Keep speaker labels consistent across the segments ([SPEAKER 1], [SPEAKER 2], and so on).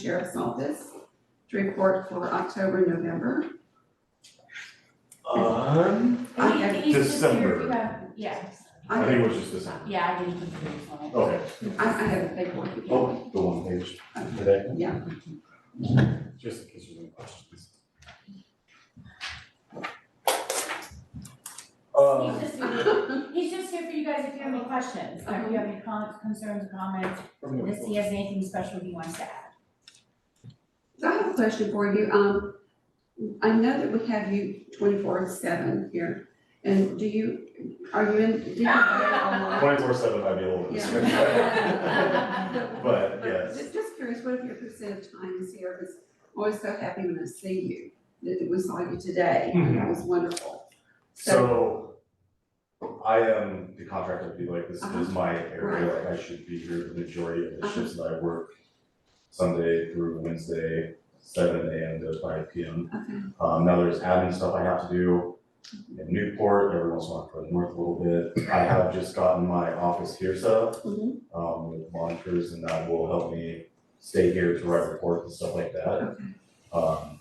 [SPEAKER 1] Sheriff's Office to report for October, November.
[SPEAKER 2] On,
[SPEAKER 1] I have-
[SPEAKER 3] He's just here if you
[SPEAKER 2] December.
[SPEAKER 3] have- Yeah,
[SPEAKER 2] I
[SPEAKER 1] I,
[SPEAKER 2] think it was just December.
[SPEAKER 3] yeah, I did put the dates on it.
[SPEAKER 2] Okay.
[SPEAKER 1] I I have a paperwork. again.
[SPEAKER 2] Oh, the one page today.
[SPEAKER 1] Yeah.
[SPEAKER 2] Just in case you have any questions.
[SPEAKER 3] He's
[SPEAKER 2] Uh,
[SPEAKER 3] just here, he's just here for you guys if you have any questions, or if you have any con- concerns, comments,
[SPEAKER 2] from
[SPEAKER 3] if
[SPEAKER 2] the,
[SPEAKER 3] he has anything special he wants to add.
[SPEAKER 1] So I have a question for you. Um, I know that we have you twenty-four seven here, and do you, are you in, do you have
[SPEAKER 2] twenty-four seven might be a little bit.
[SPEAKER 1] Yeah.
[SPEAKER 2] But, yes,
[SPEAKER 1] Just just curious, what if your percent of time is here? I was always so happy when I see you, that that we saw you today.
[SPEAKER 2] Mm-hmm.
[SPEAKER 1] That was wonderful.
[SPEAKER 2] so I am the contractor, to be like, this is my area, like, I should be here the majority of the shifts that I work. Sunday through Wednesday, seven AM to five PM.
[SPEAKER 1] Okay,
[SPEAKER 2] Um, now there's admin stuff I have to do in Newport, every once in a while I go north a little bit. I have just gotten my office here set up,
[SPEAKER 1] Mhm.
[SPEAKER 2] um, with monitors and that will help me stay here to write reports and stuff like that.
[SPEAKER 1] okay,
[SPEAKER 2] Um,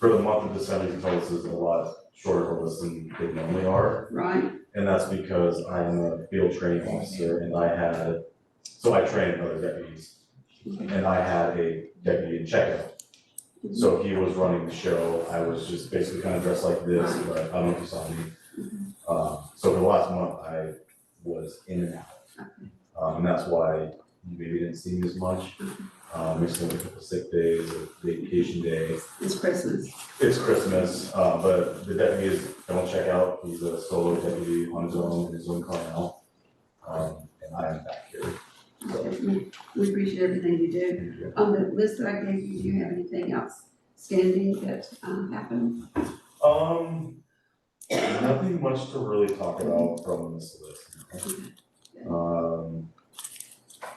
[SPEAKER 2] for the month of December, you can tell this is a lot shorter of a list than they normally are.
[SPEAKER 1] right,
[SPEAKER 2] And that's because I am a field training officer and I had, so I trained other deputies. And I had a deputy in checkout. So he was running the show, I was just basically kind of dressed like this, but I don't know if you saw me. Uh, so for the last month, I was in and out. Um, and that's why you maybe didn't see me as much. Um, we still have a couple sick days, a vacation day,
[SPEAKER 1] it's Christmas.
[SPEAKER 2] it's Christmas, uh, but the deputy is, don't check out, he's a solo deputy on his own, in his own car now. Um, and I am back here, so,
[SPEAKER 1] We we appreciate everything you do.
[SPEAKER 2] thank you.
[SPEAKER 1] On the list that I gave you, do you have anything else standing that uh, happened?
[SPEAKER 2] Um, nothing much to really talk about from this list. Um,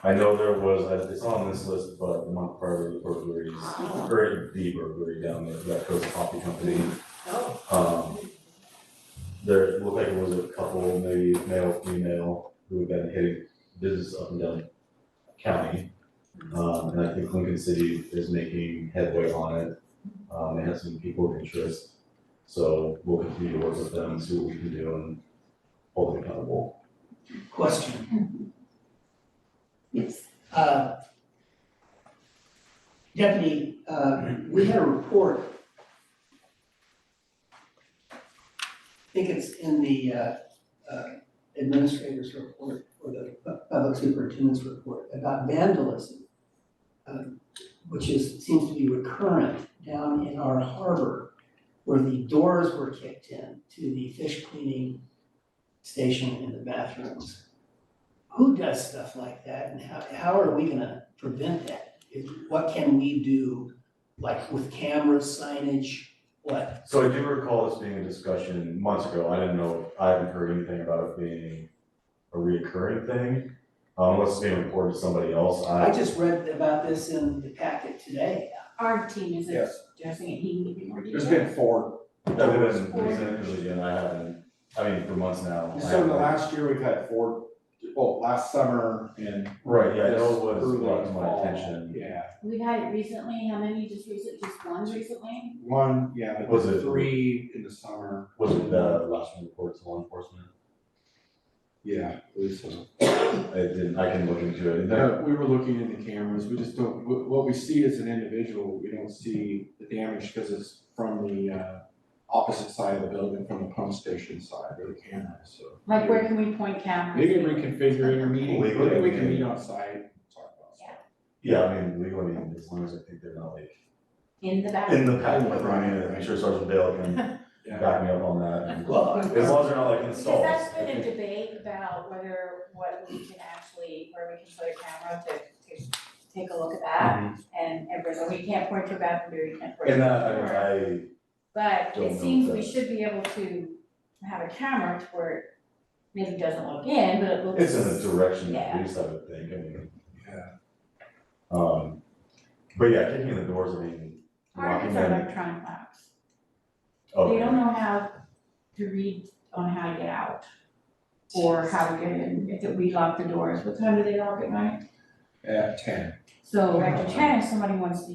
[SPEAKER 2] I know there was, uh, it's on this list, but the Mount Carver burglaries, or the burglary down there, that Coast Coffee Company. Um, there looked like it was a couple, maybe male, female, who had been hitting business up and down county. Um, and I think Lincoln City is making headway on it. Um, they have some people of interest. So we'll continue to work with them, and see what we can do and hold them accountable.
[SPEAKER 4] Question,
[SPEAKER 1] Yes,
[SPEAKER 4] uh. Deputy, uh, we had a report. I think it's in the, uh, uh, administrator's report or the pu- public superintendent's report about vandalism. um, Which is, seems to be recurrent down in our harbor where the doors were kicked in to the fish cleaning station and the bathrooms who does stuff like that and how, how are we gonna prevent that? Is- What can we do, like with cameras, signage, what?
[SPEAKER 2] So I do recall this being a discussion months ago. I didn't know, I haven't heard anything about it being a reoccurring thing. Um, Unless it's being reported to somebody else,
[SPEAKER 4] I
[SPEAKER 2] I,
[SPEAKER 4] just read about this in the packet today.
[SPEAKER 3] Our team is
[SPEAKER 5] Yes.
[SPEAKER 3] addressing it, he can give you more
[SPEAKER 5] There's
[SPEAKER 3] details.
[SPEAKER 5] been four.
[SPEAKER 2] I've been recently, and I haven't, I mean, for months now. I
[SPEAKER 5] So the
[SPEAKER 2] haven't-
[SPEAKER 5] last year we've had four, well, last summer and.
[SPEAKER 2] Right, yeah, I
[SPEAKER 5] this
[SPEAKER 2] know it was
[SPEAKER 5] early
[SPEAKER 2] brought to my
[SPEAKER 5] fall.
[SPEAKER 2] attention.
[SPEAKER 5] Yeah,
[SPEAKER 3] We've had it recently, how many just recent, just one recently?
[SPEAKER 5] one, yeah, but
[SPEAKER 2] Was it-
[SPEAKER 5] three in the summer.
[SPEAKER 2] Was it the last one reported to law enforcement?
[SPEAKER 5] Yeah, it was, uh,
[SPEAKER 2] I didn't, I can look into it. There-
[SPEAKER 5] no, we were looking in the cameras, we just don't, what, what we see as an individual, we don't see the damage because it's from the, uh, opposite side of the building, from the pump station side of the camera, so.
[SPEAKER 3] Like, where can we point cameras?
[SPEAKER 5] Maybe reconfigure it or meeting,
[SPEAKER 2] We-
[SPEAKER 5] maybe we can meet outside, and talk about stuff.
[SPEAKER 2] Yeah, I mean, legally, as long as I think they're not like
[SPEAKER 3] In the back.
[SPEAKER 2] in the patent with Ryan, and I'm sure Sergeant Dale can
[SPEAKER 5] Yeah.
[SPEAKER 2] back me up on that. and-
[SPEAKER 4] Well,
[SPEAKER 2] As long as they're not like
[SPEAKER 3] Because
[SPEAKER 2] installed.
[SPEAKER 3] that's been a debate about whether what we can actually, where we can put a camera to to take a look at that.
[SPEAKER 2] Mm-hmm.
[SPEAKER 3] And everybody's like, we can't point to a bathroom, door, you can't point to a
[SPEAKER 2] And that, I mean,
[SPEAKER 3] door."
[SPEAKER 2] I,
[SPEAKER 3] But
[SPEAKER 2] Don't
[SPEAKER 3] it
[SPEAKER 2] know
[SPEAKER 3] seems
[SPEAKER 2] if
[SPEAKER 3] we
[SPEAKER 2] that's-
[SPEAKER 3] should be able to have a camera to where it maybe doesn't look in, but it looks.
[SPEAKER 2] it's in the direction of
[SPEAKER 3] Yeah.
[SPEAKER 2] police, I would think, I mean.
[SPEAKER 5] Yeah.
[SPEAKER 2] Um, but yeah, kicking in the doors, I mean, locking
[SPEAKER 3] Targets are
[SPEAKER 2] them,
[SPEAKER 3] electronic locks. They
[SPEAKER 2] oh,
[SPEAKER 3] don't know how to read on how to get out or how to get in. If we lock the doors, what time do they lock at night?
[SPEAKER 5] At ten.
[SPEAKER 1] So.
[SPEAKER 3] Director Chen, if somebody wants to